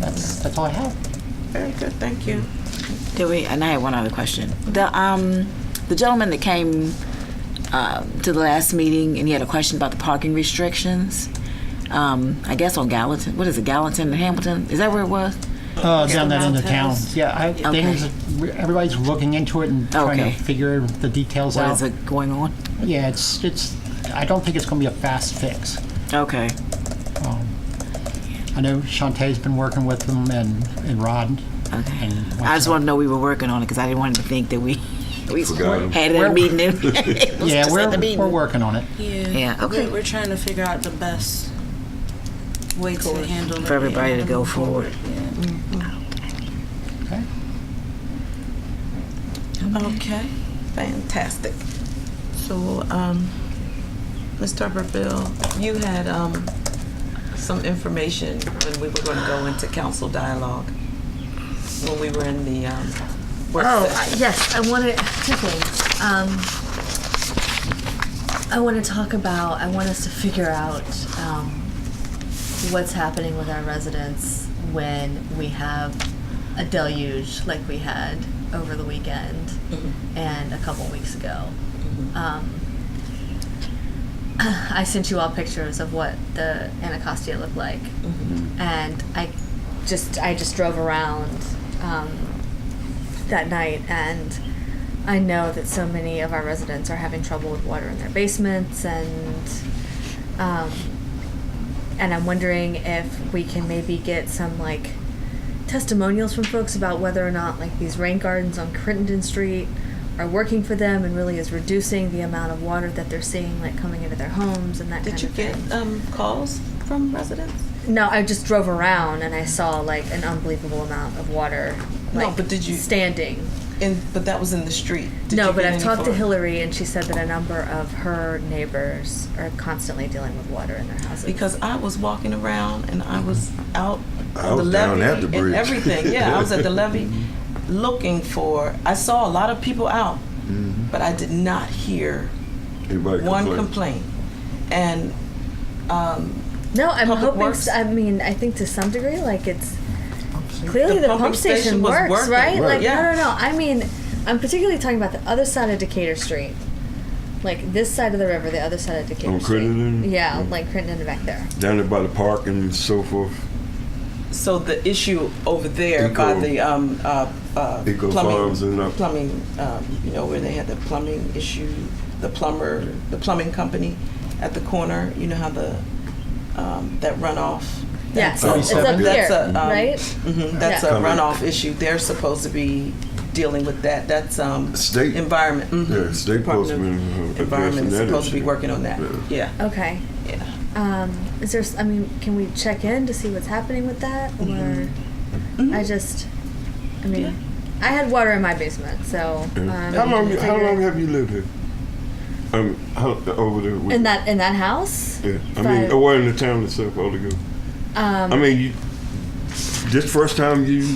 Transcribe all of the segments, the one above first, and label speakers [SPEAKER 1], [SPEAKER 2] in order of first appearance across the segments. [SPEAKER 1] that's, that's all I have.
[SPEAKER 2] Very good, thank you.
[SPEAKER 3] Did we? And I had one other question. The um, the gentleman that came uh, to the last meeting and he had a question about the parking restrictions. Um, I guess on Gallatin. What is it? Gallatin and Hamilton? Is that where it was?
[SPEAKER 1] Uh, down that end of town.
[SPEAKER 2] Mountains.
[SPEAKER 1] Yeah, I,
[SPEAKER 3] Okay.
[SPEAKER 1] things, everybody's looking into it and trying
[SPEAKER 3] Okay.
[SPEAKER 1] to figure the details
[SPEAKER 3] What
[SPEAKER 1] out.
[SPEAKER 3] is it going on?
[SPEAKER 1] Yeah, it's, it's, I don't think it's going to be a fast fix.
[SPEAKER 3] Okay.
[SPEAKER 1] I know Shantae's been working with them and, and Rod.
[SPEAKER 3] Okay.
[SPEAKER 1] And
[SPEAKER 3] I just want to know we were working on it because I didn't want him to think that we we
[SPEAKER 4] Forgot him.
[SPEAKER 3] had it in
[SPEAKER 1] We're-
[SPEAKER 3] a meeting. and it was
[SPEAKER 1] Yeah,
[SPEAKER 3] just
[SPEAKER 1] we're,
[SPEAKER 3] at the meeting.
[SPEAKER 1] we're working on it.
[SPEAKER 2] Yeah.
[SPEAKER 3] Yeah, okay.
[SPEAKER 2] We're, we're trying to figure out the best way to handle it.
[SPEAKER 3] For everybody to
[SPEAKER 2] and
[SPEAKER 3] go
[SPEAKER 2] move
[SPEAKER 3] forward.
[SPEAKER 2] Yeah.
[SPEAKER 1] Okay.
[SPEAKER 2] Okay, fantastic. So, um, Ms. Tarperville, you had, um, some information when we were gonna go into council dialogue, when we were in the, um, work
[SPEAKER 5] Oh,
[SPEAKER 2] session.
[SPEAKER 5] I- yes, I want to, two things. Um, I want to talk about, I want us to figure out um, what's happening with our residents when we have a deluge like we had over the weekend and a couple weeks ago. Um, I sent you all pictures of what the Anacostia looked like,
[SPEAKER 2] Mm-hmm.
[SPEAKER 4] Mm.
[SPEAKER 5] and I just I just drove around um, that night and I know that so many of our residents are having trouble with water in their basements and um, and I'm wondering if we can maybe get some like testimonials from folks about whether or not like these rain gardens on Crittenden Street are working for them and really is reducing the amount of water that they're seeing like coming into their homes and that
[SPEAKER 2] Did
[SPEAKER 5] kind
[SPEAKER 2] you
[SPEAKER 5] of
[SPEAKER 2] get,
[SPEAKER 5] thing.
[SPEAKER 2] um, calls from residents?
[SPEAKER 5] No, I just drove around and I saw like an unbelievable amount of water
[SPEAKER 2] No,
[SPEAKER 5] like
[SPEAKER 2] but did you-
[SPEAKER 5] standing
[SPEAKER 2] And, but that was in the street. Did
[SPEAKER 5] no,
[SPEAKER 2] you
[SPEAKER 5] but
[SPEAKER 2] get
[SPEAKER 5] I've
[SPEAKER 2] any
[SPEAKER 5] talked to
[SPEAKER 2] phone-
[SPEAKER 5] Hillary, and she said that a number of her neighbors are constantly dealing with water in their houses.
[SPEAKER 2] because I was walking around and I was out
[SPEAKER 4] I
[SPEAKER 2] on the
[SPEAKER 4] was
[SPEAKER 2] levee
[SPEAKER 4] down at the
[SPEAKER 2] and
[SPEAKER 4] bridge.
[SPEAKER 2] everything. Yeah, I was at the levee looking for. I saw a lot of people out,
[SPEAKER 4] Mm-hmm.
[SPEAKER 2] but I did not hear
[SPEAKER 4] Anybody
[SPEAKER 2] one
[SPEAKER 4] complain?
[SPEAKER 2] complaint. And um,
[SPEAKER 5] no, I'm
[SPEAKER 2] Public
[SPEAKER 5] hoping.
[SPEAKER 2] Works-
[SPEAKER 5] s I I mean, I think to some degree, like it's clearly
[SPEAKER 2] The
[SPEAKER 5] the,
[SPEAKER 2] pump
[SPEAKER 5] pump,
[SPEAKER 2] station
[SPEAKER 5] station,
[SPEAKER 2] was
[SPEAKER 5] works,
[SPEAKER 2] working.
[SPEAKER 5] right?
[SPEAKER 4] Right.
[SPEAKER 5] Like
[SPEAKER 2] Yeah.
[SPEAKER 5] no, no, no. I mean, I'm particularly talking about the other side of Decatur Street, like this side of the river, the other side of Decatur
[SPEAKER 4] On
[SPEAKER 5] Street.
[SPEAKER 4] Crittenden?
[SPEAKER 5] Oh, Yeah,
[SPEAKER 4] Mm.
[SPEAKER 5] like Crittenden back there.
[SPEAKER 4] Down there by the park and so forth.
[SPEAKER 2] so the issue over there by
[SPEAKER 4] Eco-
[SPEAKER 2] the um, uh, uh,
[SPEAKER 4] Eco
[SPEAKER 2] plumbing,
[SPEAKER 4] Farms and up-
[SPEAKER 2] plumbing, um, you know, where they had the plumbing issue, the plumber, the plumbing company at the corner. You know how the um, that runoff.
[SPEAKER 5] Yeah,
[SPEAKER 2] that's
[SPEAKER 5] so
[SPEAKER 2] a-
[SPEAKER 5] it's up
[SPEAKER 4] Thirty-seven?
[SPEAKER 5] here,
[SPEAKER 2] That's a, um,
[SPEAKER 5] right?
[SPEAKER 2] hmm that's
[SPEAKER 5] Yeah.
[SPEAKER 2] a
[SPEAKER 4] Come in.
[SPEAKER 2] runoff issue. They're supposed to be dealing with that. That's um,
[SPEAKER 4] State.
[SPEAKER 2] environment. mhm.
[SPEAKER 4] Yeah, state
[SPEAKER 2] Department of
[SPEAKER 4] postman, uh,
[SPEAKER 2] Environment is
[SPEAKER 4] addressing that
[SPEAKER 2] supposed to be
[SPEAKER 4] issue.
[SPEAKER 2] working on that. Yeah.
[SPEAKER 5] Okay.
[SPEAKER 2] yeah.
[SPEAKER 5] Um, is there? s- I mean, can we check in to see what's happening with that, or
[SPEAKER 4] Mm-hmm.
[SPEAKER 5] I just, I mean,
[SPEAKER 2] Yeah.
[SPEAKER 5] I had water in my basement, so. Um,
[SPEAKER 4] how long? How
[SPEAKER 5] figure-
[SPEAKER 4] long have you lived here? Um, how, over there. with-
[SPEAKER 5] in that in that house?
[SPEAKER 4] Yeah, I
[SPEAKER 5] Five.
[SPEAKER 4] mean, or in the town itself altogether.
[SPEAKER 5] Um,
[SPEAKER 4] I mean, you, this first time you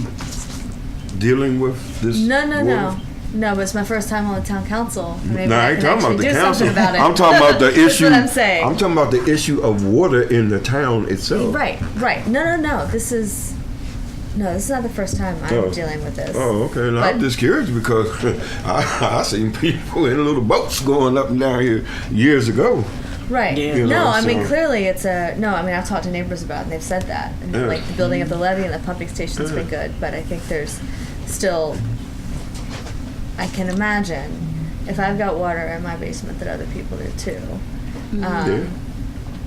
[SPEAKER 4] dealing with this.
[SPEAKER 5] no, no, no,
[SPEAKER 4] water?
[SPEAKER 5] no. But it's my first time on the town council. Maybe
[SPEAKER 4] No, I ain't
[SPEAKER 5] can
[SPEAKER 4] talking about
[SPEAKER 5] actually
[SPEAKER 4] the
[SPEAKER 5] do
[SPEAKER 4] council.
[SPEAKER 5] something about it.
[SPEAKER 4] I'm talking about the
[SPEAKER 5] That's
[SPEAKER 4] issue.
[SPEAKER 5] what I'm saying.
[SPEAKER 4] I'm talking about the issue of water in the town itself.
[SPEAKER 5] right, right. No, no, no. This is no. This is not the first time I'm
[SPEAKER 4] Oh.
[SPEAKER 5] dealing with this.
[SPEAKER 4] Oh, okay. Now, I'm
[SPEAKER 5] But-
[SPEAKER 4] just curious because I, I seen people in little boats going up and down here years ago.
[SPEAKER 5] Right.
[SPEAKER 3] Yeah.
[SPEAKER 4] You
[SPEAKER 5] No,
[SPEAKER 4] know,
[SPEAKER 5] I mean
[SPEAKER 4] so-
[SPEAKER 5] clearly it's a no. I mean I've talked to neighbors about it and they've said that. And
[SPEAKER 4] Yeah.
[SPEAKER 5] Like the building of the levee and the pumping station's been good, but I think there's still. I can imagine if I've got water in my basement that other people do too, um,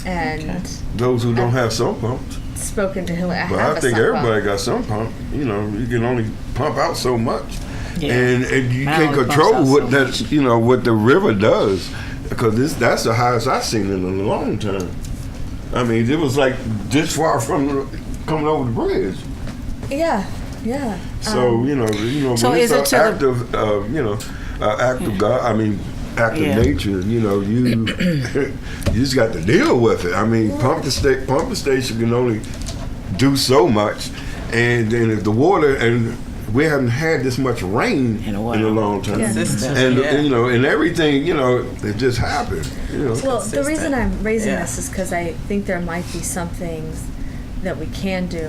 [SPEAKER 5] and
[SPEAKER 2] Okay.
[SPEAKER 4] Those who don't have sump pumps.
[SPEAKER 5] spoken to Hillary. I
[SPEAKER 4] But
[SPEAKER 5] have
[SPEAKER 4] I
[SPEAKER 5] a
[SPEAKER 4] think
[SPEAKER 5] sump
[SPEAKER 4] everybody
[SPEAKER 5] pump.
[SPEAKER 4] got some pump. You know, you can only pump out so much,
[SPEAKER 3] Yeah.
[SPEAKER 4] and and you
[SPEAKER 3] Mine
[SPEAKER 4] can't
[SPEAKER 3] only pumps out
[SPEAKER 4] control
[SPEAKER 3] so
[SPEAKER 4] what that
[SPEAKER 3] much.
[SPEAKER 4] you know what the river does, because this that's the highest I've seen in a long time. I mean, it was like this far from the, coming over the bridge.
[SPEAKER 5] Yeah, yeah.
[SPEAKER 4] So you know, you know,
[SPEAKER 3] Um, So
[SPEAKER 4] when it's
[SPEAKER 3] is it
[SPEAKER 4] an
[SPEAKER 3] to the-
[SPEAKER 4] act of uh, you know, uh, act of God. I mean, act
[SPEAKER 3] Yeah.
[SPEAKER 4] of nature. You know, you you just got to deal with it. I mean, pump the state, pump the station can only do so much, and then if the water and we haven't had this much rain
[SPEAKER 3] In
[SPEAKER 4] in
[SPEAKER 3] a
[SPEAKER 4] a,
[SPEAKER 3] while.
[SPEAKER 4] long time,
[SPEAKER 2] Consistent,
[SPEAKER 4] and
[SPEAKER 2] yeah.
[SPEAKER 4] you know, and everything, you know, it just happened. You know,
[SPEAKER 5] Well, the
[SPEAKER 2] consistent.
[SPEAKER 5] reason I'm raising
[SPEAKER 2] Yeah.
[SPEAKER 5] this is because I think there might be some things that we can do